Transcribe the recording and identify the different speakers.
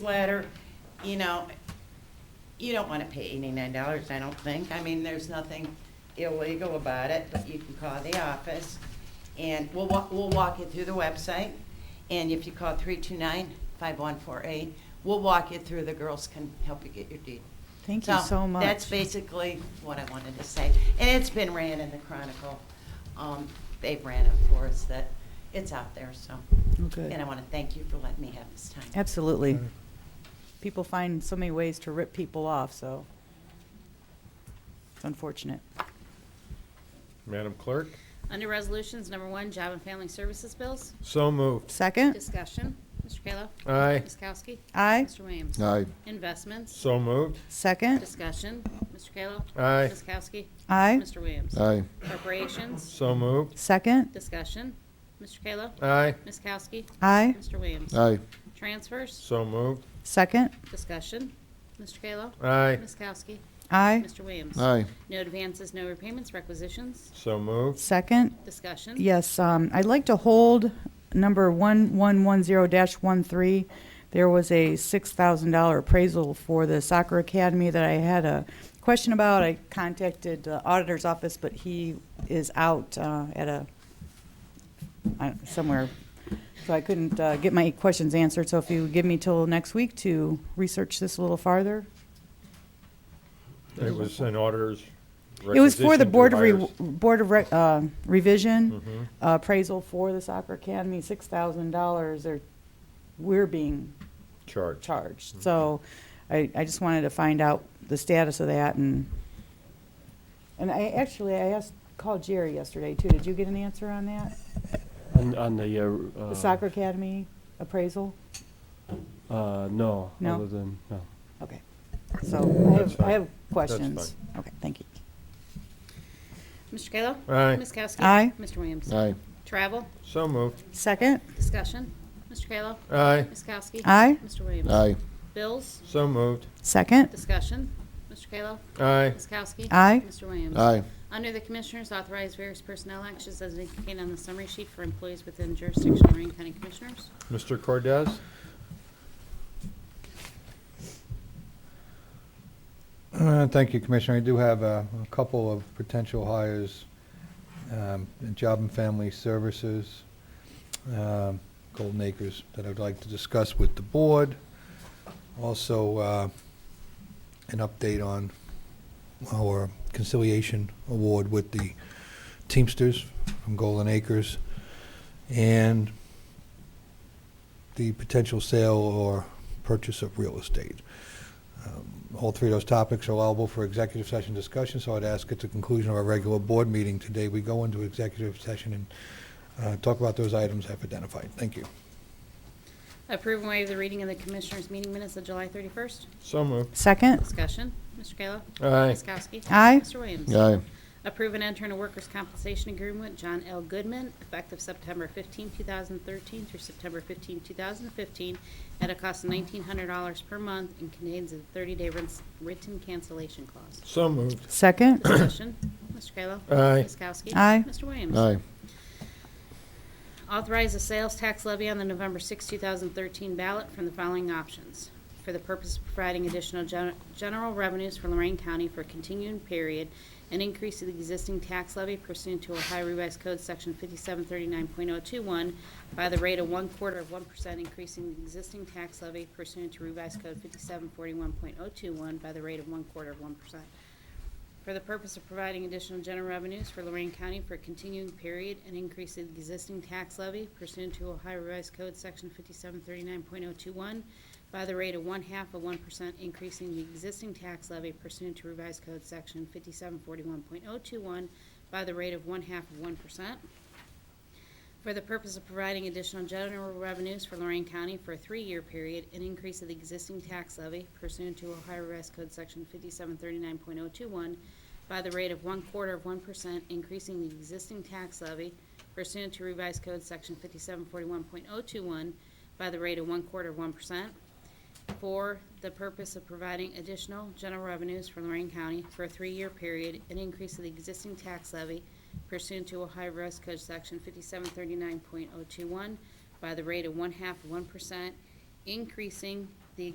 Speaker 1: letter, you know, you don't want to pay eighty-nine dollars, I don't think. I mean, there's nothing illegal about it, but you can call the office, and we'll, wa- we'll walk you through the website. And if you call three-two-nine, five-one-four-eight, we'll walk you through, the girls can help you get your deed.
Speaker 2: Thank you so much.
Speaker 1: That's basically what I wanted to say. And it's been ran in the Chronicle. Um, They've ran it for us, that, it's out there, so.
Speaker 2: Oh, good.
Speaker 1: And I want to thank you for letting me have this time.
Speaker 2: Absolutely.
Speaker 3: Okay.
Speaker 2: People find so many ways to rip people off, so it's unfortunate.
Speaker 3: Madam Clerk?
Speaker 4: Under Resolutions Number One, Job and Family Services Bills.
Speaker 3: So moved.
Speaker 2: Second?
Speaker 4: Discussion. Mr. Kayla.
Speaker 3: Aye.
Speaker 4: Ms. Kowski.
Speaker 2: Aye.
Speaker 4: Mr. Williams.
Speaker 5: Aye.
Speaker 4: Investments.
Speaker 3: So moved.
Speaker 2: Second?
Speaker 4: Discussion. Mr. Kayla.
Speaker 3: Aye.
Speaker 4: Ms. Kowski.
Speaker 2: Aye.
Speaker 4: Mr. Williams.
Speaker 5: Aye.
Speaker 4: Appropriations.
Speaker 3: So moved.
Speaker 2: Second?
Speaker 4: Discussion. Mr. Kayla.
Speaker 3: Aye.
Speaker 4: Ms. Kowski.
Speaker 2: Aye.
Speaker 4: Mr. Williams.
Speaker 5: Aye.
Speaker 4: Transfers.
Speaker 3: So moved.
Speaker 2: Second?
Speaker 4: Discussion. Mr. Kayla.
Speaker 3: Aye.
Speaker 4: Ms. Kowski.
Speaker 2: Aye.
Speaker 4: Mr. Williams.
Speaker 5: Aye.
Speaker 4: No advances, no repayments, requisitions.
Speaker 3: So moved.
Speaker 2: Second?
Speaker 4: Discussion.
Speaker 2: Yes, um, I'd like to hold number 1110-13. There was a $6,000 appraisal for the soccer academy that I had a question about. I contacted the auditor's office, but he is out uh, at a, I- somewhere, so I couldn't uh, get my questions answered. So if you give me till next week to research this a little farther.
Speaker 3: It was an auditor's
Speaker 2: It was for the
Speaker 3: requisition to
Speaker 2: Board of, Re-
Speaker 3: buyers. Mm-hmm.
Speaker 2: Board of Re- uh, Revision uh, appraisal for the soccer academy, six thousand dollars are, we're being
Speaker 3: Charge. Mm-hmm.
Speaker 2: charged. So I, I just wanted to find out the status of that and, and I, actually, I asked, called Jerry yesterday too. Did you get an answer on that?
Speaker 6: On, on the, uh,
Speaker 2: The
Speaker 6: uh,
Speaker 2: soccer academy appraisal?
Speaker 6: Uh, no.
Speaker 2: No?
Speaker 6: Other than, no.
Speaker 2: Okay. So I
Speaker 3: That's
Speaker 2: have,
Speaker 3: fine.
Speaker 2: I have
Speaker 3: That's
Speaker 2: questions. Okay, thank you.
Speaker 4: Mr. Kayla.
Speaker 3: Aye.
Speaker 4: Ms. Kowski.
Speaker 2: Aye.
Speaker 4: Mr. Williams.
Speaker 5: Aye.
Speaker 4: Travel.
Speaker 3: So moved.
Speaker 2: Second?
Speaker 4: Discussion. Mr. Kayla.
Speaker 3: Aye.
Speaker 4: Ms. Kowski.
Speaker 2: Aye.
Speaker 4: Mr. Williams.
Speaker 5: Aye.
Speaker 4: Bills,
Speaker 3: So moved.
Speaker 2: Second?
Speaker 4: discussion. Mr. Kayla.
Speaker 3: Aye.
Speaker 4: Ms. Kowski.
Speaker 2: Aye.
Speaker 4: Mr. Williams.
Speaker 5: Aye.
Speaker 4: Under the Commissioners, authorize various personnel actions as indicated on the summary sheet for employees within jurisdiction of Lorraine County Commissioners.
Speaker 3: Mr. Cordez?
Speaker 7: Uh, Thank you, Commissioner. I do have a a couple of potential hires um, in Job and Family Services, um, Golden Acres, that I'd like to discuss with the board. Also, uh, an update on our conciliation award with the Teamsters from Golden Acres, and the potential sale or purchase of real estate. Um, All three of those topics are allowable for executive session discussion, so I'd ask at the conclusion of our regular board meeting today, we go into executive session and uh, talk about those items I've identified. Thank you.
Speaker 4: Approve and waive the reading of the Commissioners' meeting minutes of July 31st.
Speaker 3: So moved.
Speaker 2: Second?
Speaker 4: Discussion. Mr. Kayla.
Speaker 3: Aye.
Speaker 4: Ms. Kowski.
Speaker 2: Aye.
Speaker 4: Mr. Williams.
Speaker 5: Aye.
Speaker 4: Approve and enter in a workers' compensation agreement with John L. Goodman effective September 15, 2013 through September 15, 2015 at a cost of $1,900 per month and contains a 30-day writs- written cancellation clause.
Speaker 3: So moved.
Speaker 2: Second?
Speaker 4: Discussion. Mr. Kayla.
Speaker 3: Aye.
Speaker 4: Ms. Kowski.
Speaker 2: Aye.
Speaker 4: Mr. Williams.
Speaker 5: Aye.
Speaker 4: Authorize a sales tax levy on the November 6, 2013 ballot from the following options. For the purpose of providing additional gen- general revenues for Lorraine County for a continuing period, an increase of the existing tax levy pursuant to Ohio Revised Code Section 5739.021 by the rate of one quarter of 1%, increasing the existing tax levy pursuant to Revised Code 5741.021 by the rate of oh one quarter of 1% for the purpose of providing additional general revenues for Lorraine County for a continuing period and increase the existing tax levy pursuant to Ohio Revised Code Section 5739.021 by the rate of one-half of 1%, increasing the existing tax levy pursuant to Revised Code Section 5741.021 by the rate of one-half of 1%. For the purpose of providing additional general revenues for Lorraine County for a three-year period, an increase of the existing tax levy pursuant to Ohio Revised Code Section 5739.021 by the rate of one quarter of 1%, increasing the existing tax levy pursuant to Revised Code Section 5741.021 by the rate of one quarter of 1%. For the purpose of providing additional general revenues for Lorraine County for a three-year period, an increase of the existing tax levy pursuant to Ohio Revised Code Section 5739.021 by the rate of one-half of 1%, increasing